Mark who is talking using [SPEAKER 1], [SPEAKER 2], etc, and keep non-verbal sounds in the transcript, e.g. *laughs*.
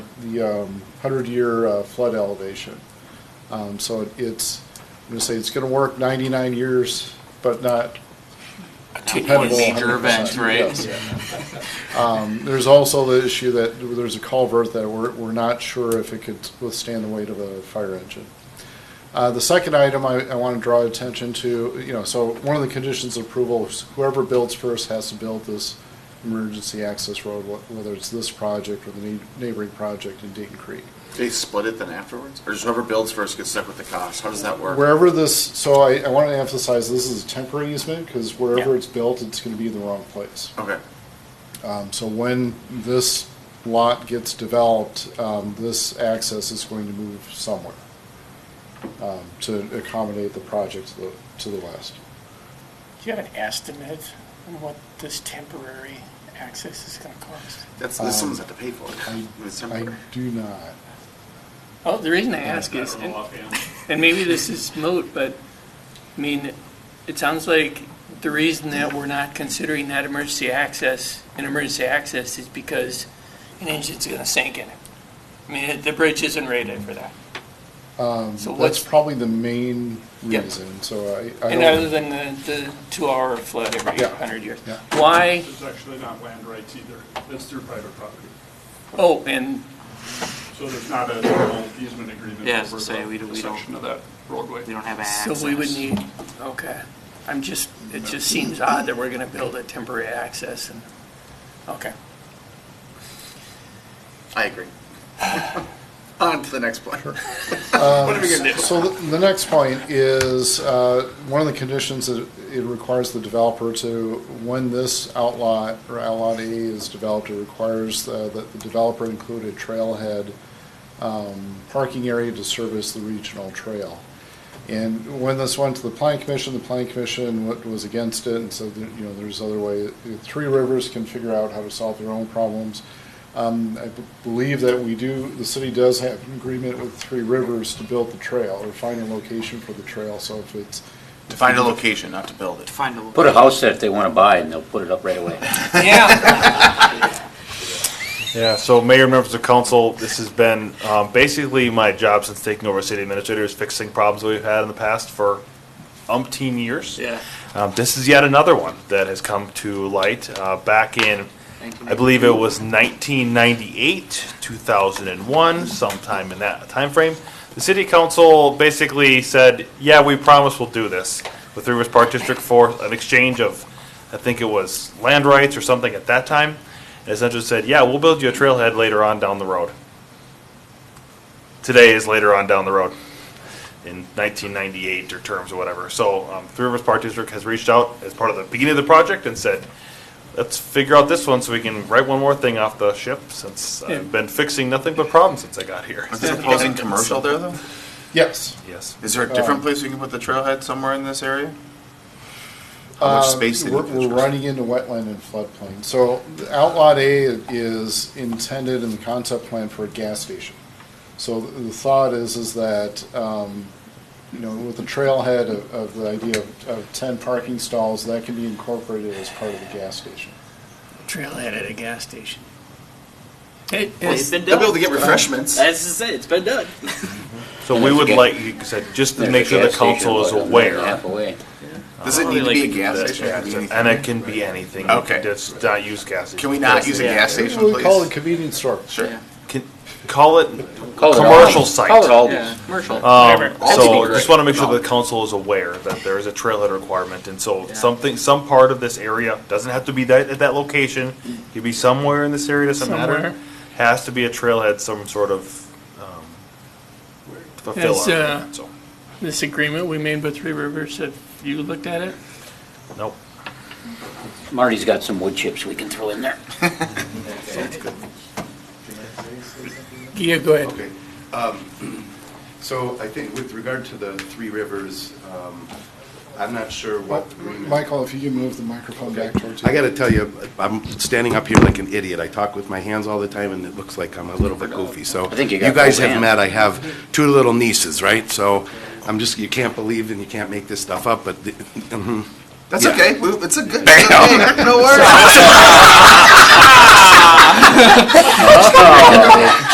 [SPEAKER 1] the um, 100-year uh, flood elevation. Um, So it- it's, I'm going to say it's going to work 99 years, but not dependable.
[SPEAKER 2] Major
[SPEAKER 1] 100%.
[SPEAKER 2] event, right?
[SPEAKER 1] Yeah. Um, There's also the issue that there's a culvert that we're, we're not sure if it could withstand the weight of a fire engine. Uh, The second item I, I want to draw attention to, you know, so one of the conditions of approval is whoever builds first has to build this emergency access road, wh- whether it's this project or the neigh- neighboring project in Dayton Creek.
[SPEAKER 3] They split it then afterwards, or just whoever builds first gets stuck with the cost. How does that work?
[SPEAKER 1] Wherever this, so I, I want to emphasize this is a temporary easement because wherever
[SPEAKER 4] Yeah.
[SPEAKER 1] it's built, it's going to be in the wrong place.
[SPEAKER 3] Okay,
[SPEAKER 1] Um, so when this lot gets developed, um, this access is going to move somewhere um, to accommodate the project to the, to the west.
[SPEAKER 4] Do you have an estimate on what this temporary access is gonna cost?
[SPEAKER 3] that's this
[SPEAKER 1] Um,
[SPEAKER 3] someone's have to pay for it.
[SPEAKER 1] I,
[SPEAKER 3] It's
[SPEAKER 1] I
[SPEAKER 3] temporary.
[SPEAKER 1] do not.
[SPEAKER 4] Oh, the reason I ask is, and- *laughs* and maybe this is moot, but, I mean, it sounds like the reason that we're not considering that emergency access, an emergency access, is because an engine's gonna sink in it. I mean, the bridge isn't rated for that.
[SPEAKER 1] Um,
[SPEAKER 4] So
[SPEAKER 1] that's
[SPEAKER 4] what's-
[SPEAKER 1] probably the main
[SPEAKER 4] Yep.
[SPEAKER 1] reason. So I, I
[SPEAKER 4] And
[SPEAKER 1] don't,
[SPEAKER 4] other than the, the two-hour flood every
[SPEAKER 1] Yeah.
[SPEAKER 4] hundred years.
[SPEAKER 1] Yeah.
[SPEAKER 4] Why,
[SPEAKER 5] It's actually not land rights either. It's through private property.
[SPEAKER 4] oh, and
[SPEAKER 5] So there's not a formal easement agreement
[SPEAKER 2] Yeah, I was
[SPEAKER 5] over
[SPEAKER 2] gonna say, we
[SPEAKER 5] the
[SPEAKER 2] don't-
[SPEAKER 5] the
[SPEAKER 2] we don't-
[SPEAKER 5] section of that roadway.
[SPEAKER 2] We don't have
[SPEAKER 4] So
[SPEAKER 2] access.
[SPEAKER 4] we would need, okay. I'm just, it just seems odd that we're going to build a temporary access and, okay.
[SPEAKER 3] I agree. *laughs* On to the next point. *laughs*
[SPEAKER 1] Uh,
[SPEAKER 3] what are we gonna do?
[SPEAKER 1] So the- the next point is, uh, one of the conditions that it requires the developer to, when this outlot or outlot A is developed, it requires uh, that the developer include a trailhead um, parking area to service the regional trail. And when this went to the planning commission, the planning commission wa- was against it and said, that, you know, there's other way. Three Rivers can figure out how to solve their own problems. Um, I b- believe that we do, the city does have an agreement with Three Rivers to build the trail or find a location for the trail, so if it's.
[SPEAKER 3] To find a location, not to build it.
[SPEAKER 2] Find a.
[SPEAKER 6] Put a house there if they want to buy, and they'll put it up right away.
[SPEAKER 4] Yeah.
[SPEAKER 7] Yeah, so mayor, members of council, this has been, um, basically my job since taking over as city administrator is fixing problems that we've had in the past for umpteen years.
[SPEAKER 2] Yeah.
[SPEAKER 7] Um, this is yet another one that has come to light, uh, back in,
[SPEAKER 2] Thank you.
[SPEAKER 7] I believe it was nineteen ninety-eight, two thousand and one, sometime in that timeframe. The city council basically said, yeah, we promise we'll do this with Rivers Park District for an exchange of, I think it was land rights or something at that time. And essentially said, yeah, we'll build you a trailhead later on down the road. Today is later on down the road in 1998 or terms or whatever. So um, Three Rivers Park District has reached out as part of the beginning of the project and said, let's figure out this one so we can write one more thing off the ship since
[SPEAKER 4] Yeah.
[SPEAKER 7] I've been fixing nothing but problems since I got here.
[SPEAKER 3] Is there proposing commercial there though?
[SPEAKER 1] Yes.
[SPEAKER 7] Yes.
[SPEAKER 3] Is there a
[SPEAKER 1] Uh,
[SPEAKER 3] different place we can put the trailhead somewhere in this area? How much
[SPEAKER 1] Uh,
[SPEAKER 3] space they need
[SPEAKER 1] We're,
[SPEAKER 3] for the
[SPEAKER 1] we're
[SPEAKER 3] trailhead?
[SPEAKER 1] running into wetland and floodplain. So the outlot A is intended in the concept plan for a gas station. So the the thought is, is that, um, you know, with the trailhead of, of the idea of, of ten parking stalls, that can be incorporated as part of the gas station.
[SPEAKER 4] Trailhead at a gas station. It
[SPEAKER 2] It's
[SPEAKER 4] is,
[SPEAKER 2] been
[SPEAKER 3] They'll be able
[SPEAKER 2] done.
[SPEAKER 3] to get refreshments.
[SPEAKER 2] As I say, it's been done.
[SPEAKER 7] So we would like, you said, just to make sure the council is aware.
[SPEAKER 6] Half away.
[SPEAKER 3] Does it need to be a
[SPEAKER 2] Like-
[SPEAKER 3] gas
[SPEAKER 7] that-
[SPEAKER 3] station? It can be anything.
[SPEAKER 7] And it can be anything.
[SPEAKER 3] Okay.
[SPEAKER 7] Just not use gas.
[SPEAKER 3] Can we not use a gas
[SPEAKER 1] Maybe
[SPEAKER 3] station,
[SPEAKER 1] We call
[SPEAKER 3] please?
[SPEAKER 1] it convenience store.
[SPEAKER 3] Sure.
[SPEAKER 7] Can- Call it
[SPEAKER 6] Call it
[SPEAKER 7] commercial
[SPEAKER 6] Aldi's.
[SPEAKER 7] site.
[SPEAKER 6] Call it
[SPEAKER 2] Yeah,
[SPEAKER 6] Aldi's.
[SPEAKER 2] commercial.
[SPEAKER 7] Um,
[SPEAKER 3] That's
[SPEAKER 7] so
[SPEAKER 3] incorrect.
[SPEAKER 7] just want to make sure the council is aware that there is a trailhead requirement, and so
[SPEAKER 2] Yeah.
[SPEAKER 7] something, some part of this area, doesn't have to be that, at that location, could be somewhere in this area, doesn't
[SPEAKER 4] Somewhere.
[SPEAKER 7] matter. Has to be a trailhead, some sort of, um, fulfill
[SPEAKER 4] Yes,
[SPEAKER 7] our-
[SPEAKER 4] uh,
[SPEAKER 7] so,
[SPEAKER 4] this agreement we made with Three Rivers, have you looked at it?
[SPEAKER 7] nope.
[SPEAKER 6] Marty's got some wood chips we can throw in there.
[SPEAKER 4] Yeah, go ahead.
[SPEAKER 8] Okay. Um, So I think with regard to the Three Rivers, um, I'm not sure what. agreement-
[SPEAKER 1] Michael, if you can move the microphone back towards you.
[SPEAKER 8] I got to tell you, I'm standing up here like an idiot. I talk with my hands all the time, and it looks like I'm a little bit goofy, so.
[SPEAKER 6] I think you got
[SPEAKER 8] guys
[SPEAKER 6] both
[SPEAKER 8] have
[SPEAKER 6] hands.
[SPEAKER 8] met, I have two little nieces, right? So I'm just, you can't believe and you can't make this stuff up, but the-
[SPEAKER 3] That's
[SPEAKER 8] Yeah.
[SPEAKER 3] okay. We, it's a good. It's okay.
[SPEAKER 6] Oh,
[SPEAKER 3] No worries.